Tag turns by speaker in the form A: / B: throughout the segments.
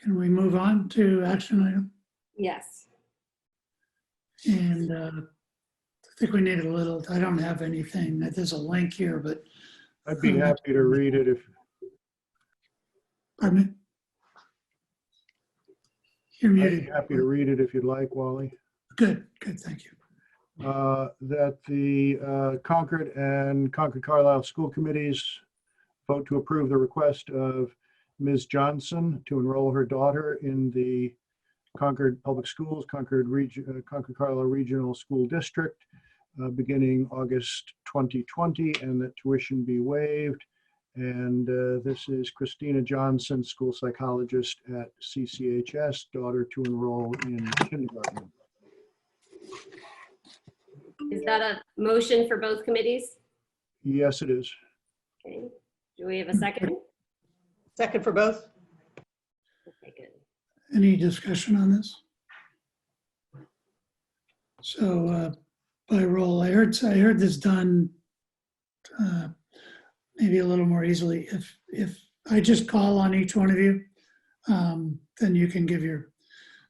A: Can we move on to action item?
B: Yes.
A: And uh, I think we need a little, I don't have anything, there's a link here, but,
C: I'd be happy to read it if,
A: pardon me? You're
C: I'd be
A: muted.
C: happy to read it if you'd like, Wally.
A: Good, good, thank you.
C: Uh, That the uh, Concord and Concord Carlisle School Committees vote to approve the request of Ms. Johnson to enroll her daughter in the Concord Public Schools, Concord Region, Concord Carlisle Regional School District, uh, beginning August 2020, and that tuition be waived. And uh, this is Christina Johnson, school psychologist at CCHS, daughter to enroll in kindergarten.
B: Is that a motion for both committees?
C: Yes, it is.
B: Okay. Do we have a second?
D: Second for both?
B: Okay, good.
A: Any discussion on this? So uh, by roll, I heard, I heard this done uh, maybe a little more easily. If, if I just call on each one of you, um, then you can give your,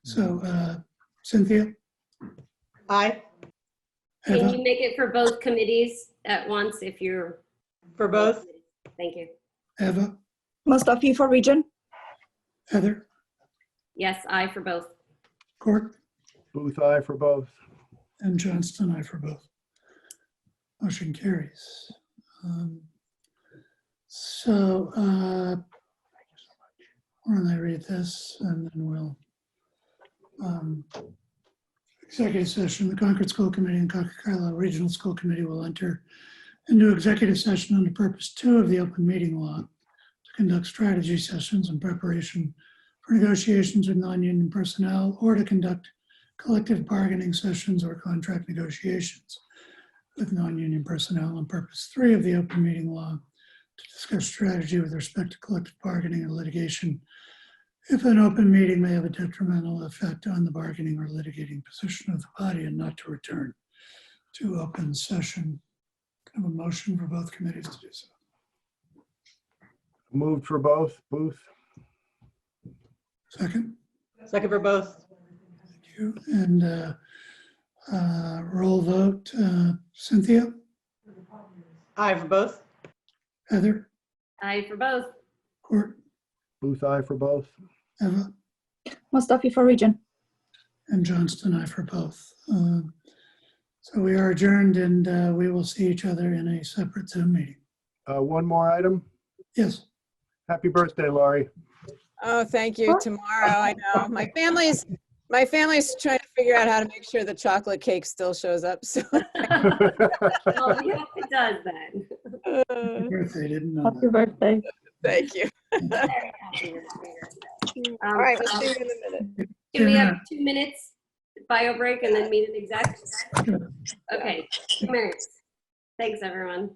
A: so uh, Cynthia?
D: Aye,
B: Can
A: Eva?
B: you make it for both committees at once if you're?
D: for both?
B: Thank you.
A: Eva?
E: Mustafi for region.
A: Heather?
B: Yes, I for both.
A: Court?
C: Booth, aye for both.
A: And Johnston, I for both. Motion carries. Um, So, uh, why don't I read this and then we'll. um, Executive session, the Concord School Committee and Concord Carlisle Regional School Committee will enter into executive session under purpose two of the open meeting law to conduct strategy sessions in preparation for negotiations with non-union personnel or to conduct collective bargaining sessions or contract negotiations with non-union personnel on purpose three of the open meeting law to discuss strategy with respect to collective bargaining and litigation if an open meeting may have a detrimental effect on the bargaining or litigating position of the body and not to return to open session. Kind of a motion for both committees to do so.
C: Moved for both, Booth.
A: Second,
D: Second for both?
A: thank you. And uh, uh, roll vote, uh, Cynthia,
D: Aye, for both?
A: Heather,
B: I for both.
A: Court,
C: Booth, aye for both.
A: Eva.
E: Mustafi for region.
A: And Johnston, I for both. Um, So we are adjourned and uh, we will see each other in a separate Zoom meeting.
C: Uh, One more item.
A: Yes,
C: Happy birthday, Laurie.
F: Oh, thank you.
E: Sure.
F: Tomorrow, I know. My family's, my family's trying to figure out how to make sure the chocolate cake still shows up, so.
B: Oh, we hope it does then.
A: happy birthday, didn't uh, know
E: Happy
A: that.
E: birthday.
F: Thank you.
B: Very happy with that. Um,
F: All right, we'll
B: so
F: see you in a minute.
B: Can we have two minutes bio break and then meet in exec?
A: Sure.
B: Okay, two minutes. Thanks, everyone.